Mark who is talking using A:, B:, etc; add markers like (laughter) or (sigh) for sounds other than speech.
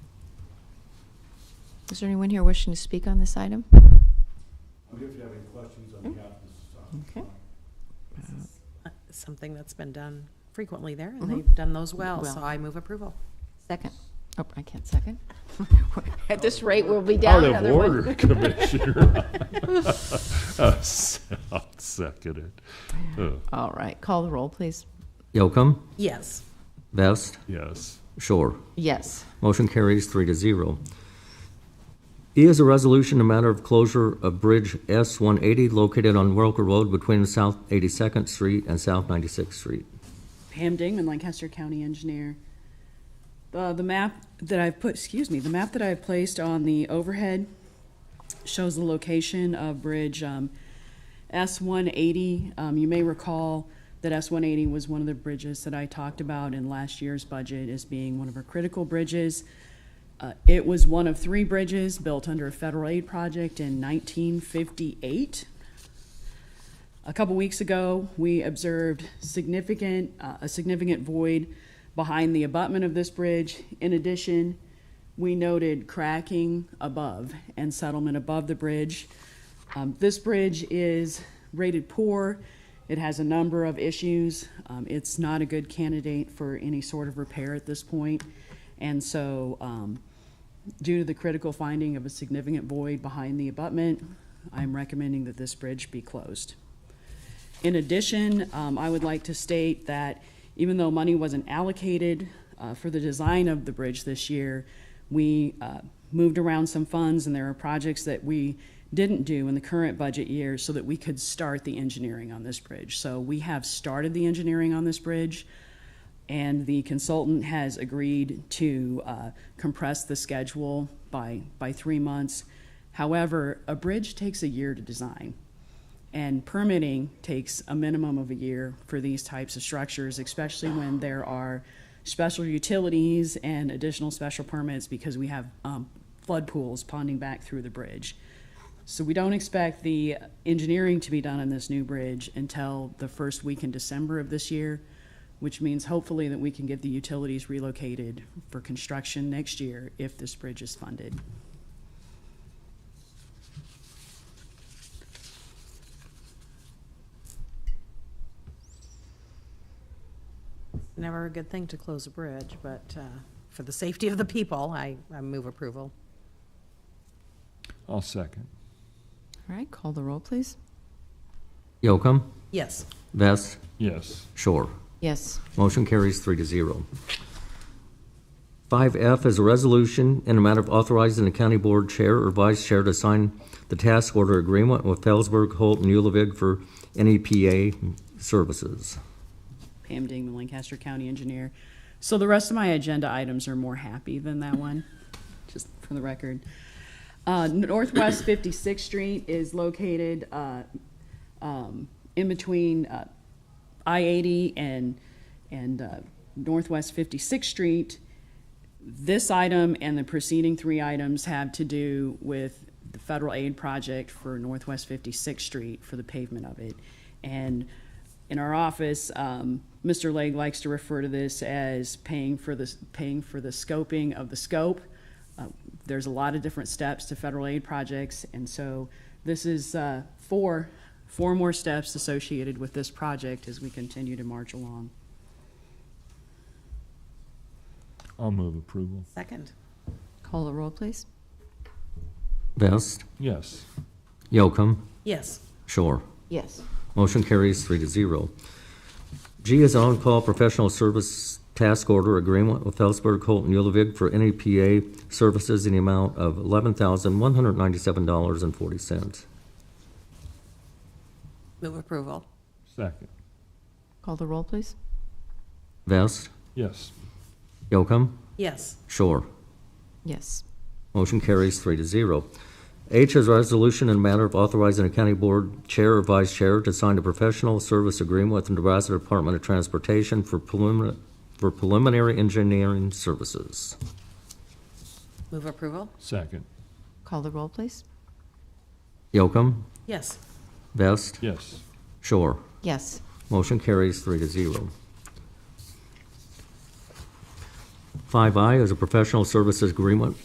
A: Is there anyone here wishing to speak on this item?
B: I'm here if you have any questions on behalf of the
A: Okay.
B: society.
C: Uh, Something that's been done frequently there,
A: Mhm.
C: and they've done those Mm-hmm. well,
A: Well.
C: so I move approval.
A: Second. Oh, I can't second. (laughs) At this rate, we'll be down
D: Out of
A: another one. (laughs)
D: order, Commissioner. (laughs) I'll second it. Uh,
A: All right, call the roll, please.
E: Yocum,
C: Yes.
E: Vest,
D: Yes.
E: Shore.
A: Yes.
E: Motion carries three to zero. E is a resolution in matter of closure of Bridge S-180 located on Welker Road between South 82nd Street and South 96th Street.
F: Pam Dingman, Lancaster County Engineer. Uh, the map that I've put, excuse me, the map that I've placed on the overhead shows the location of Bridge um, S-180. Um, you may recall that S-180 was one of the bridges that I talked about in last year's budget as being one of our critical bridges. Uh, it was one of three bridges built under a federal aid project in 1958. A couple weeks ago, we observed significant, uh, a significant void behind the abutment of this bridge. In addition, we noted cracking above and settlement above the bridge. Um, this bridge is rated poor. It has a number of issues. Um, it's not a good candidate for any sort of repair at this point. And so, um, due to the critical finding of a significant void behind the abutment, I'm recommending that this bridge be closed. In addition, um, I would like to state that even though money wasn't allocated uh, for the design of the bridge this year, we uh, moved around some funds, and there are projects that we didn't do in the current budget year so that we could start the engineering on this bridge. So we have started the engineering on this bridge, and the consultant has agreed to uh, compress the schedule by, by three months. However, a bridge takes a year to design. And permitting takes a minimum of a year for these types of structures, especially when there are special utilities and additional special permits because we have um, flood pools ponding back through the bridge. So we don't expect the engineering to be done on this new bridge until the first week in December of this year, which means hopefully that we can get the utilities relocated for construction next year if this bridge is funded.
C: Never a good thing to close a bridge, but uh, for the safety of the people, I, I move approval.
D: I'll second.
A: All right, call the roll, please.
E: Yocum,
C: Yes.
E: Vest,
D: Yes.
E: Shore.
A: Yes.
E: Motion carries three to zero. Five F is a resolution in a matter of authorizing the county board chair or vice chair to sign the task order agreement with Felsberg, Holt, and Ullvig for NEPA services.
F: Pam Dingman, Lancaster County Engineer. So the rest of my agenda items are more happy than that one, (laughs) just for the record. Uh, Northwest 56th Street is located uh, um, in between uh, I-80 and, and uh, Northwest 56th Street. This item and the preceding three items have to do with the federal aid project for Northwest 56th Street for the pavement of it. And in our office, um, Mr. Legg likes to refer to this as paying for the, paying for the scoping of the scope. Uh, There's a lot of different steps to federal aid projects, and so this is uh, four, four more steps associated with this project as we continue to march along.
D: I'll move approval.
C: Second.
A: Call the roll, please.
E: Vest,
D: Yes.
E: Yocum,
C: Yes.
E: Shore.
A: Yes.
E: Motion carries three to zero. G is on-call professional service task order agreement with Felsberg, Holt, and Ullvig for NEPA services in the amount of $11,197.40.
C: Move approval.
D: Second.
A: Call the roll, please.
E: Vest,
D: Yes.
E: Yocum,
C: Yes.
E: Shore.
A: Yes.
E: Motion carries three to zero. H is a resolution in matter of authorizing a county board chair or vice chair to sign a professional service agreement with the Nebraska Department of Transportation for preliminary, for preliminary engineering services.
C: Move approval.
D: Second.
A: Call the roll, please.
E: Yocum,
C: Yes.
E: Vest,
D: Yes.
E: Shore.
A: Yes.
E: Motion carries three to zero. Five I is a professional services agreement